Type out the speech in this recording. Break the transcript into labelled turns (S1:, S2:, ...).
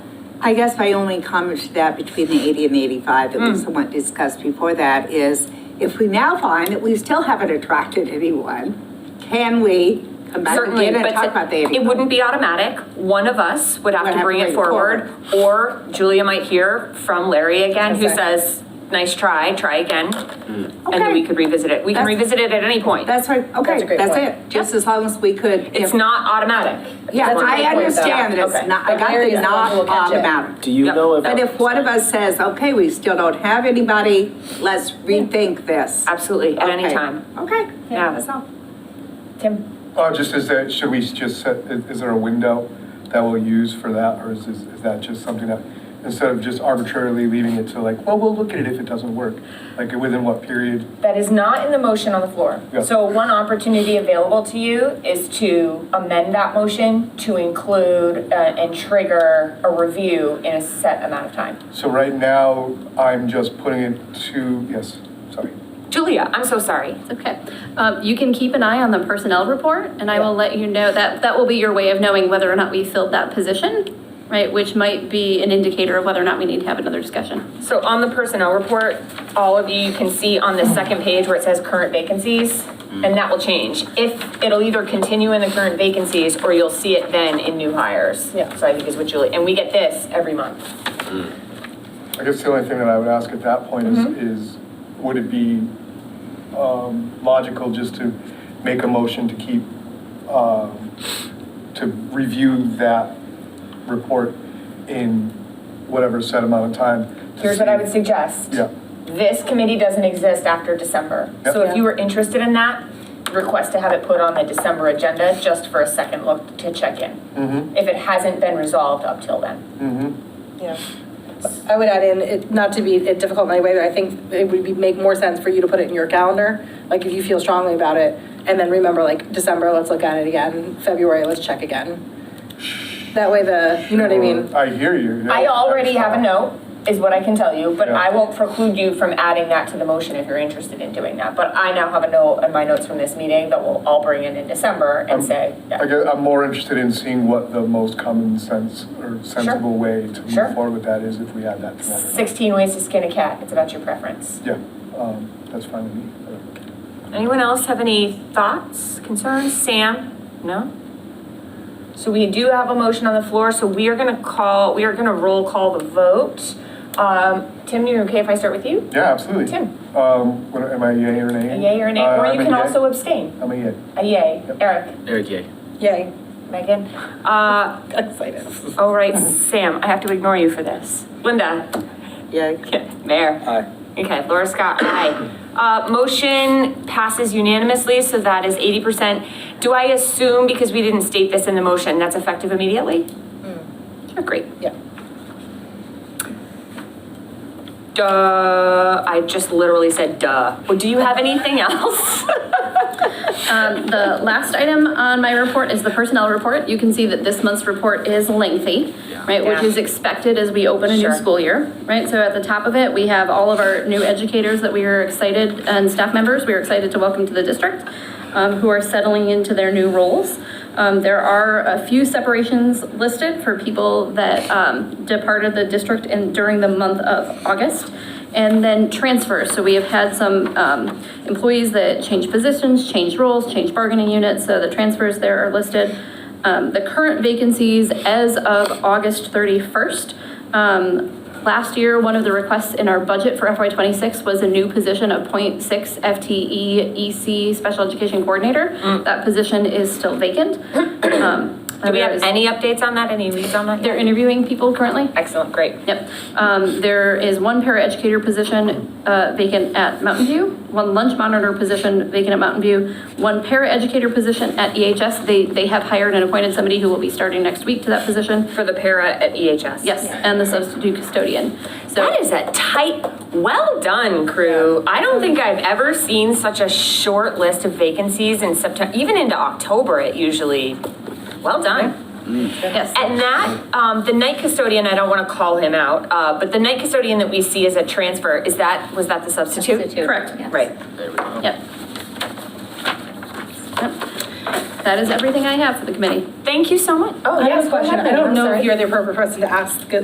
S1: I guess my only comment to that between the 80 and the 85 that we
S2: Hmm.
S1: somewhat discussed before that is if we now find that we still haven't attracted anyone, can we come back
S3: Certainly,
S1: again and
S3: but
S1: talk about the
S3: it
S1: 85?
S3: wouldn't be automatic. One of us would have
S1: Would
S3: to bring it forward, or Julia might hear from Larry again, who
S1: Okay.
S3: says, nice try, try again. And then
S1: Okay.
S3: we could revisit it. We can
S1: That's-
S3: revisit it at any point.
S1: That's right,
S2: That's a
S1: okay,
S2: great
S1: that's
S2: point.
S1: it. Just as long as we could.
S3: It's
S1: if-
S3: not automatic.
S1: Yeah,
S2: That's a
S1: I
S2: great point, though.
S1: understand that
S2: Okay.
S1: it's not, I
S2: But
S1: got
S2: Larry's
S1: the
S2: the one who
S1: not
S2: will catch it.
S1: automatic.
S4: Do you
S3: Yep.
S4: know if?
S1: But if one of us says, okay, we still don't have anybody, let's rethink this.
S3: Absolutely, at any
S1: Okay.
S3: time.
S1: Okay.
S3: Yeah.
S1: That's all.
S2: Tim,
S5: Oh, just is there, should we just set, is is there a window that we'll use for that, or is, is is that just something that, instead of just arbitrarily leaving it to like, well, we'll look at it if it doesn't work? Like, within what period?
S2: that is not in the motion on the floor.
S5: Yeah.
S2: So one opportunity available to you is to amend that motion to include uh, and trigger a review in a set amount of time.
S5: So right now, I'm just putting it to, yes, sorry.
S3: Julia, I'm so sorry.
S6: Okay, um, you can keep an eye on the personnel report, and I will let you know, that, that will be your way of knowing whether or not we filled that position, right, which might be an indicator of whether or not we need to have another discussion.
S2: So on the personnel report, all of you, you can see on the second page where it says current vacancies,
S5: Mm-hmm.
S2: and that will change. If, it'll either continue in the current vacancies, or you'll see it then in new hires. Yeah. So I think is what Julie, and we get this every month.
S5: I guess the only thing that I would ask at that point is,
S2: Mm-hmm.
S5: is would it be um, logical just to make a motion to keep, um, to review that report in whatever set amount of time? to
S2: Here's what I
S5: see-
S2: would suggest.
S5: Yeah.
S2: This committee doesn't exist after December.
S5: Yep.
S2: So if you were interested in that, request to have it put on the December agenda just for a second look to check in.
S5: Mm-hmm,
S2: If it hasn't been resolved up till then.
S5: mm-hmm.
S7: Yeah. I would add in, it- not to be difficult in any way, but I think it would be, make more sense for you to put it in your calendar, like if you feel strongly about it, and then remember, like, December, let's look at it again, February, let's check again. That way the, you know what I mean?
S5: I hear you. yeah.
S2: I already have a note, is what I can tell you, but
S5: Yeah.
S2: I won't preclude you from adding that to the motion if you're interested in doing that. But I now have a note in my notes from this meeting that we'll all bring in in December and
S5: I'm-
S2: say,
S5: Um, I
S2: yeah.
S5: guess I'm more interested in seeing what the most common sense or sensible way to
S2: Sure.
S5: move forward with that is if we add that together.
S2: 16 ways to skin a cat, it's about your preference.
S5: Yeah, um, that's fine with me.
S3: Anyone else have any thoughts, concerns? Sam? No?
S2: So we do have a motion on the floor, so we are gonna call, we are gonna roll call the vote. Um, Tim, you okay if I start with you?
S5: Yeah, absolutely.
S2: Tim?
S5: Um, what, am I a yay or an
S2: A
S5: nay?
S2: yay or a nay,
S5: Uh,
S2: or
S5: I'm
S2: you
S5: a
S2: can
S5: yay.
S2: also abstain.
S5: I'm a yay.
S2: A yay.
S5: Yep.
S2: Eric,
S4: Eric, yay.
S7: Yay.
S2: Megan?
S3: Uh,
S7: Excited.
S3: all right, Sam, I have to ignore you for this. Linda?
S1: Yay.
S3: Okay, Mayor?
S4: Aye.
S3: Okay, Laura Scott, aye. Uh, motion passes unanimously, so that is eighty percent. Do I assume, because we didn't state this in the motion, that's effective immediately? Sure, great.
S7: Yeah.
S3: Duh, I just literally said duh. Well, do you have anything else?
S6: Um, the last item on my report is the personnel report. You can see that this month's report is lengthy, right, which
S2: Yeah.
S6: is expected as we open a new
S2: Sure.
S6: school year, right? So at the top of it, we have all of our new educators that we are excited, and staff members, we are excited to welcome to the district, um, who are settling into their new roles. Um, there are a few separations listed for people that, um, departed the district in, during the month of August. And then transfers, so we have had some, um, employees that change positions, change roles, change bargaining units, so the transfers there are listed. Um, the current vacancies as of August thirty-first, um, Last year, one of the requests in our budget for FY '26 was a new position of .6 FTE EC E Special Education Coordinator. That position is still vacant.
S3: Mm.
S6: Um,
S3: Do we
S6: there
S3: have
S6: is-
S3: any updates on that, any leads on that?
S6: They're interviewing people currently.
S2: Excellent, great.
S6: Yep. Um, There is one paraeducator position uh, vacant at Mountain View, one lunch monitor position vacant at Mountain View, one paraeducator position at EHS. They, they have hired and appointed somebody who will be starting next week to that position.
S2: For the para at
S3: E
S2: EHS.
S6: Yes, and the substitute custodian. So.
S3: That is a tight, well done, crew. I don't think I've ever seen such a short list of vacancies in September, even into October, it usually, well done.
S6: Yes.
S3: And that, um, the night custodian, I don't want to call him out, uh, but the night custodian that we see as a transfer, is that, was that the substitute?
S6: Substitute, Correct. yes.
S3: Right.
S4: There we go.
S6: Yep. Yep. That is everything I have for the committee.
S3: Thank you so much.
S2: Oh,
S7: I
S2: yes,
S7: have a question, I don't know if you're the appropriate person to ask